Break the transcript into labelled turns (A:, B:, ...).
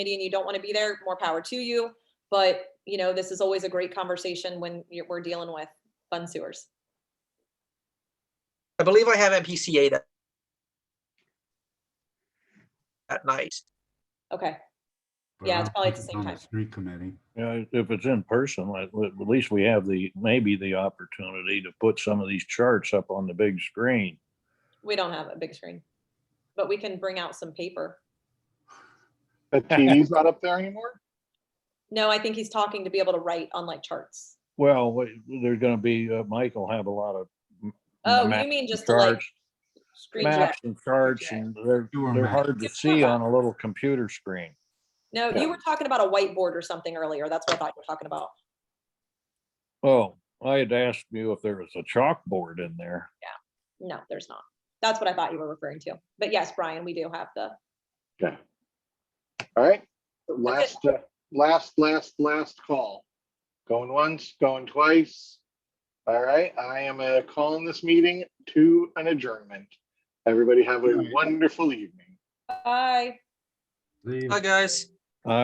A: committee and you don't want to be there, more power to you. But, you know, this is always a great conversation when you're, we're dealing with fund sewers.
B: I believe I have MPCA that at night.
A: Okay,
C: but
A: Yeah,
C: I
A: it's
C: don't
A: probably at
C: think
A: the
C: it's
A: same
C: on
A: time.
C: Street committee.
D: Yeah, if it's in person, at, at least we have the, maybe the opportunity to put some of these charts up on the big screen.
A: we don't have a big screen, but we can bring out some paper.
E: That TV's not up there anymore?
A: No, I think he's talking to be able to write on like charts.
D: Well, wait, there's gonna be, uh, Mike will have a lot of. m-
A: Oh,
D: maps
A: you mean just to like
D: charts,
A: screen share?
D: Maps and charts and they're,
C: You were
D: they're
C: mad.
D: hard to see on a little computer screen.
A: No, you were talking about a whiteboard or something earlier. That's what I thought you were talking about.
D: Oh, I had asked you if there was a chalkboard in there.
A: No, there's not. That's what I thought you were referring to. But yes, Brian, we do have the,
E: Okay. All right, last, uh, last, last, last call. Going once, going twice. All right, I am uh, calling this meeting to an adjournment. Everybody have a wonderful evening.
A: bye.
C: Leave.
B: Hi, guys.